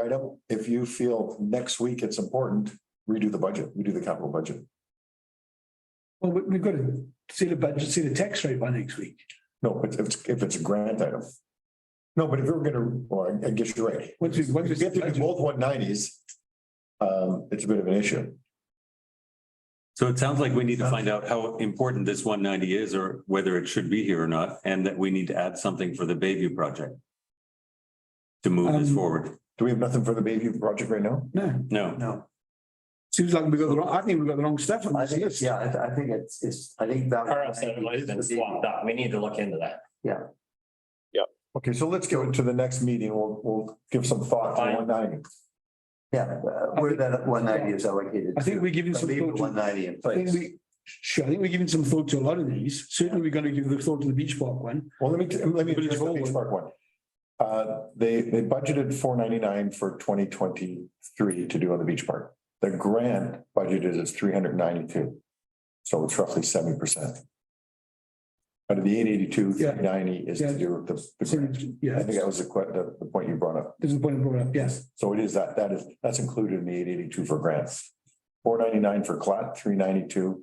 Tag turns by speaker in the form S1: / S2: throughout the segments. S1: item. If you feel next week it's important, redo the budget, redo the capital budget.
S2: Well, we, we've got to see the budget, see the tax rate by next week.
S1: No, but if, it's- if it's a grant item. No, but if we're gonna, well, I guess you're right.
S2: Once we- once
S1: If
S2: we
S1: you
S2: see
S1: have to do
S2: budget.
S1: both one nineties, um, it's a bit of an issue.
S3: So it sounds like we need to find out how important this one ninety is or whether it should be here or not, and that we need to add something for the Bayview project. To move this
S2: Um,
S3: forward.
S1: Do we have nothing for the Bayview project right now?
S2: No,
S3: No,
S4: No,
S2: seems like we got the wrong, I think we've got the wrong stuff on
S4: I
S2: this
S4: think it's,
S2: list.
S4: yeah, I, I think it's, it's, I think that.
S5: RS seven has been swapped out. We need to look into that.
S1: Okay, so let's go to the next meeting. We'll, we'll give some thought to
S5: Fine.
S1: one ninety.
S4: Yeah, uh, where that one ninety is allocated.
S2: I think we're giving some thought
S4: One
S2: to,
S4: ninety in
S2: I think
S4: place.
S2: we, sure, I think we're giving some thought to a lot of these. Certainly, we're going to give the thought to the beach park one.
S1: Well, let me, t- let me
S2: But it's
S1: address the
S2: all
S1: Beach
S2: one.
S1: Park one. Uh, they, they budgeted four ninety-nine for twenty twenty-three to do on the beach park. The grant budget is three hundred ninety-two. So it's roughly seventy percent. Out of the eight eighty-two,
S2: Yeah.
S1: three ninety is
S2: Yeah.
S1: to do with the- the.
S2: So,
S1: grant. I
S2: yeah,
S1: think that was the que- the, the point you brought up.
S2: there's a point I brought up, yes.
S1: So it is that, that is, that's included in the eight eighty-two for grants. Four ninety-nine for CLAT, three ninety-two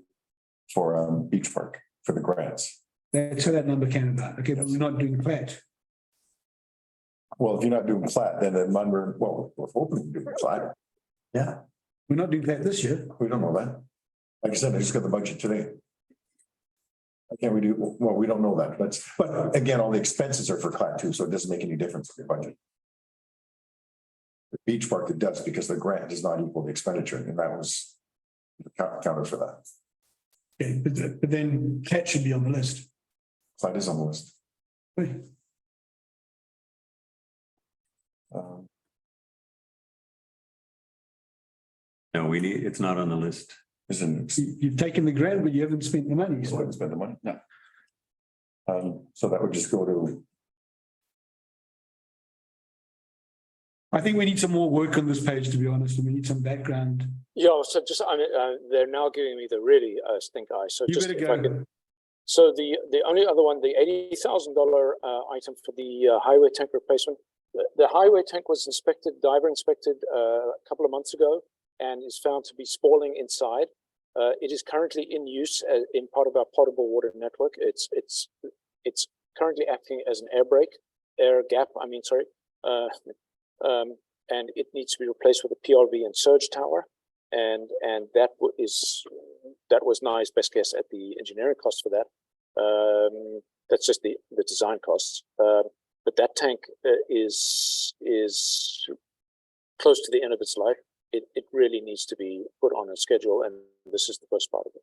S1: for, um, beach park, for the grants.
S2: That's how that number came about. Okay, but we're not doing that.
S1: Well, if you're not doing plat, then the Munro, well, we're hoping to do plat.
S4: Yeah,
S2: We're not doing that this year.
S1: We don't know that. Like I said, I just got the budget today. Why Can't we do, well, we don't know that, but, but again, all the expenses are for plat too, so it doesn't make any difference to the budget. The beach park it does because the grant does not equal the expenditure and that was count- counted for that.
S2: Okay, but, but then that should be on the list.
S1: Plat is on the list.
S2: Right.
S1: Um,
S3: no, we need, it's not on the list.
S1: Isn't,
S2: You- You've taken the grant, but you haven't spent the money.
S1: so
S2: So
S1: I spend the money? No. Um, so that would just go to
S2: I think we need some more work on this page, to be honest, and we need some background.
S6: Yeah, so just, I mean, uh, they're now giving me the really uh, stink eye. So
S2: You
S6: just
S2: better
S6: if I
S2: go.
S6: could- so the the only other one, the eighty thousand dollar uh, item for the uh, highway tank replacement. The, the highway tank was inspected, diver inspected uh, a couple of months ago, and is found to be spalling inside. Uh, it is currently in use uh, in part of our potable water network. It's it's it's currently acting as an air brake, air gap. I mean, sorry, uh, um, and it needs to be replaced with a PRV and surge tower and and that wa- is that was Nye's best guess at the engineering cost for that. Um, that's just the the design costs. Um, but that tank uh, is is close to the end of its life. It it really needs to be put on a schedule, and this is the first part of it.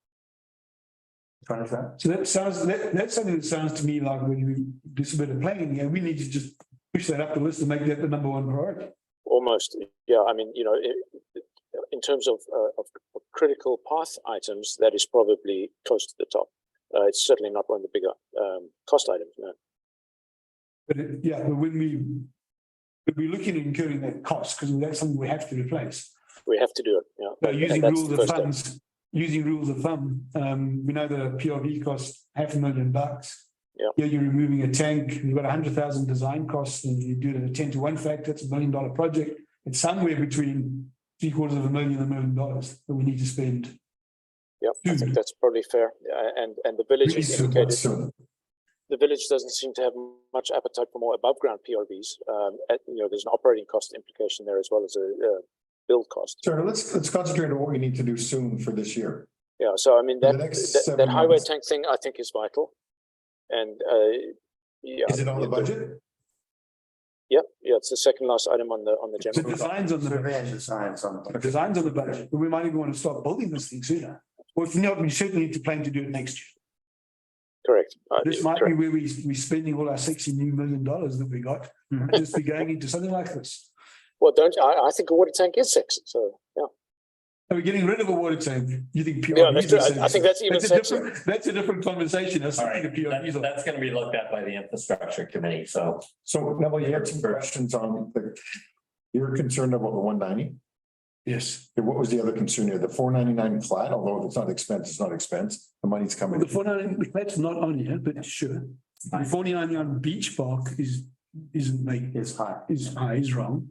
S4: twenty percent.
S2: So that sounds, that, that's something that sounds to me like when you do some bit of planning, yeah, we need to just push that up the list and make that the number one priority.
S6: Almost, yeah. I mean, you know, it, it- in terms of, uh, of of critical path items, that is probably close to the top. Uh, it's certainly not one of the bigger um, cost items. No.
S2: But it- yeah, but when we, but we're looking at incurring that cost because that's something we have to replace.
S6: We have to do it. Yeah.
S2: So using
S6: that's
S2: rules
S6: the
S2: of
S6: first step.
S2: thumbs, using rules of thumb, um, we know that a PRV costs half a million bucks.
S6: Yeah.
S2: Here you're removing a tank, you've got a hundred thousand design costs and you do it at a ten to one factor, it's a million dollar project. It's somewhere between three quarters of a million and a million dollars that we need to spend.
S6: Yeah, I
S2: Hmm.
S6: think that's probably fair. Uh, And, and the village
S1: Really
S6: is
S1: soon,
S6: indicated,
S1: soon.
S6: the village doesn't seem to have much appetite for more above ground PRVs. Um, at- you know, there's an operating cost implication there as well as a, uh build cost.
S1: Sure, let's, let's concentrate on what we need to do soon for this year.
S6: Yeah, so I mean,
S1: In the
S6: that,
S1: next
S6: that,
S1: seven
S6: that highway
S1: months.
S6: tank thing, I think is vital. And, uh, yeah.
S1: Is it on the budget?
S6: Yeah, yeah, it's the second last item on the, on the
S2: The
S6: general.
S2: designs on the.
S4: Survey and design
S2: the
S4: something.
S2: designs on the budget, but we might even want to start building this thing sooner. Or if not, we certainly need to plan to do it next year.
S6: Correct. Uh,
S2: This might
S6: correct.
S2: be where we, we're spending all our sexy new million dollars that we got,
S4: Hmm.
S2: and just be going into something like this.
S6: Well, don't, I, I think a water tank is sexy, so, yeah.
S2: Are we getting rid of a water tank? You think?
S6: Yeah,
S2: PRV
S6: that's
S2: is
S6: true. I- I
S2: essential?
S6: think that's even
S2: That's a
S6: sexier.
S2: different, that's a different conversation. I was
S5: All
S2: thinking
S5: right,
S2: of PRVs.
S5: that- that's gonna be looked at by the infrastructure committee, so.
S1: So Neville, you had some questions on the, you were concerned about the one ninety.
S2: Yes.
S1: What was the other concern here? The four ninety-nine flat, although if it's not expense, it's not expense. The money's
S2: The
S1: coming.
S2: four ninety, that's not on here, but sure. The forty-nine on Beach Park is, isn't make,
S4: It's high.
S2: is, is wrong.